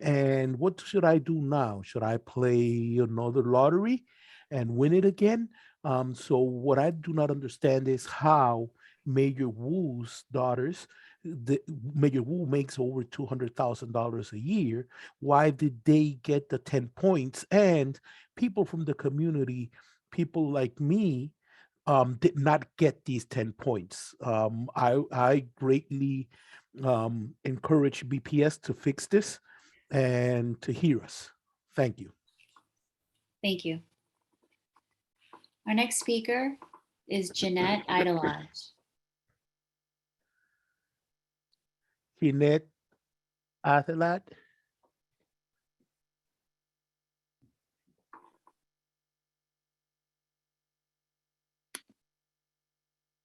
And what should I do now? Should I play another lottery and win it again? Um, so what I do not understand is how Major Wu's daughters, the Major Wu makes over two hundred thousand dollars a year. Why did they get the ten points? And people from the community, people like me, um, did not get these ten points. Um, I I greatly um, encourage BPS to fix this and to hear us. Thank you. Thank you. Our next speaker is Jeanette Idelage. Jeanette Athelat.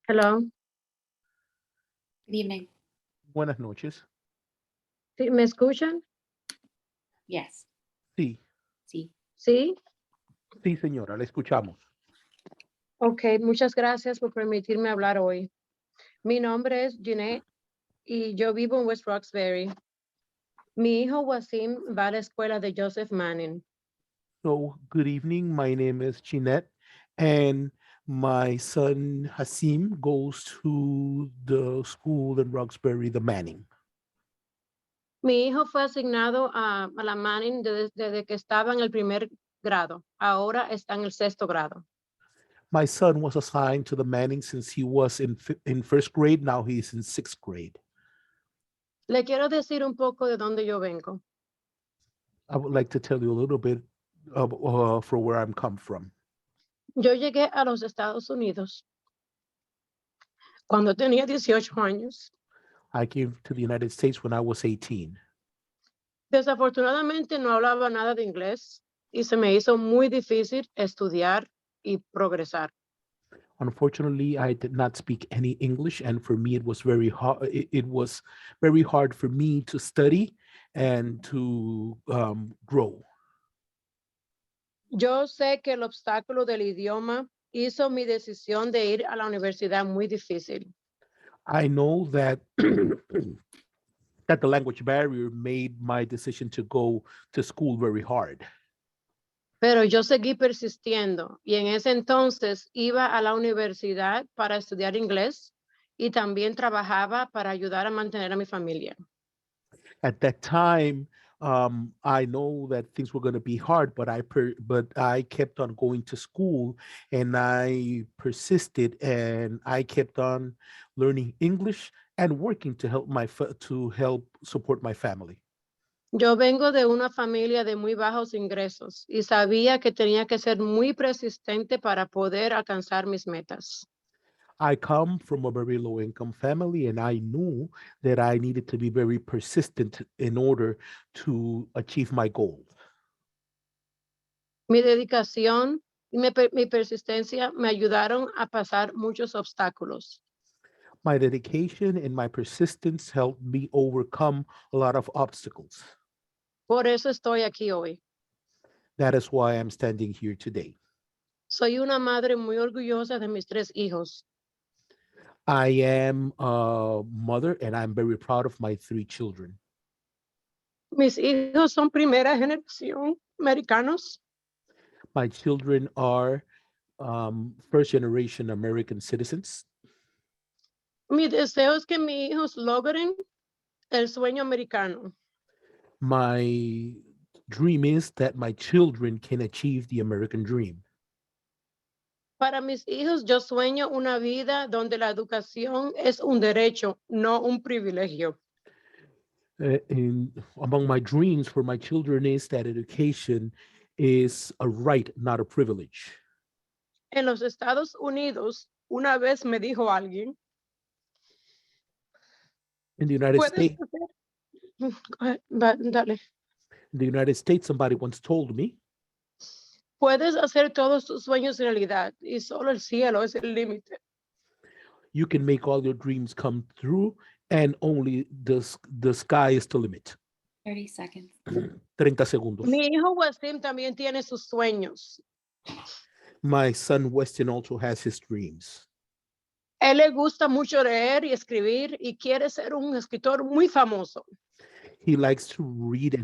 Hello. Good evening. Buenas noches. ¿Sí? ¿Me escuchan? Yes, Sí, sí. Sí. sí, señora, la escuchamos. Ok, muchas gracias por permitirme hablar hoy. Mi nombre es Jeanette y yo vivo en West Roxbury. Mi hijo Wasim va a la escuela de Joseph Manning. So, good evening. My name is Jeanette, and my son Hasim goes to the school in Roxbury, the Manning. Mi hijo fue asignado a, a la Manning desde, desde que estaba en el primer grado. Ahora está en el sexto grado. My son was assigned to the Manning since he was in fi- in first grade. Now he's in sixth grade. Le quiero decir un poco de dónde yo vengo. I would like to tell you a little bit of, uh, for where I'm come from. Yo llegué a los Estados Unidos cuando tenía 18 años. I came to the United States when I was 18. Desafortunadamente no hablaba nada de inglés y se me hizo muy difícil estudiar y progresar. Unfortunately, I did not speak any English, and for me, it was very hard. It, it was very hard for me to study and to um, grow. Yo sé que el obstáculo del idioma hizo mi decisión de ir a la universidad muy difícil. I know that that the language barrier made my decision to go to school very hard. Pero yo seguí persistiendo y en ese entonces iba a la universidad para estudiar inglés y también trabajaba para ayudar a mantener a mi familia. At that time, um, I know that things were going to be hard, but I per- but I kept on going to school and I persisted and I kept on learning English and working to help my fa- to help support my family. Yo vengo de una familia de muy bajos ingresos y sabía que tenía que ser muy persistente para poder alcanzar mis metas. I come from a very low income family, and I knew that I needed to be very persistent in order to achieve my goal. Mi dedicación y mi, per- mi persistencia me ayudaron a pasar muchos obstáculos. My dedication and my persistence helped me overcome a lot of obstacles. Por eso estoy aquí hoy. That is why I'm standing here today. Soy una madre muy orgullosa de mis tres hijos. I am a mother, and I'm very proud of my three children. Mis hijos son primera generación americanos. My children are um, first generation American citizens. Mi deseo es que mis hijos logren el sueño americano. My dream is that my children can achieve the American dream. Para mis hijos, yo sueño una vida donde la educación es un derecho, no un privilegio. uh, in among my dreams for my children is that education is a right, not a privilege. En los Estados Unidos, una vez me dijo alguien, In the United puedes States, hacer... Ah, va- dale. in the United States, somebody once told me Puedes hacer todos tus sueños realidad y solo el cielo es el límite. you can make all your dreams come true, and only the s- the sky is the limit. 30 seconds. 30 segundos. Mi hijo Wasim también tiene sus sueños. My son Weston also has his dreams. Él le gusta mucho leer y escribir y quiere ser un escritor muy famoso. He likes to read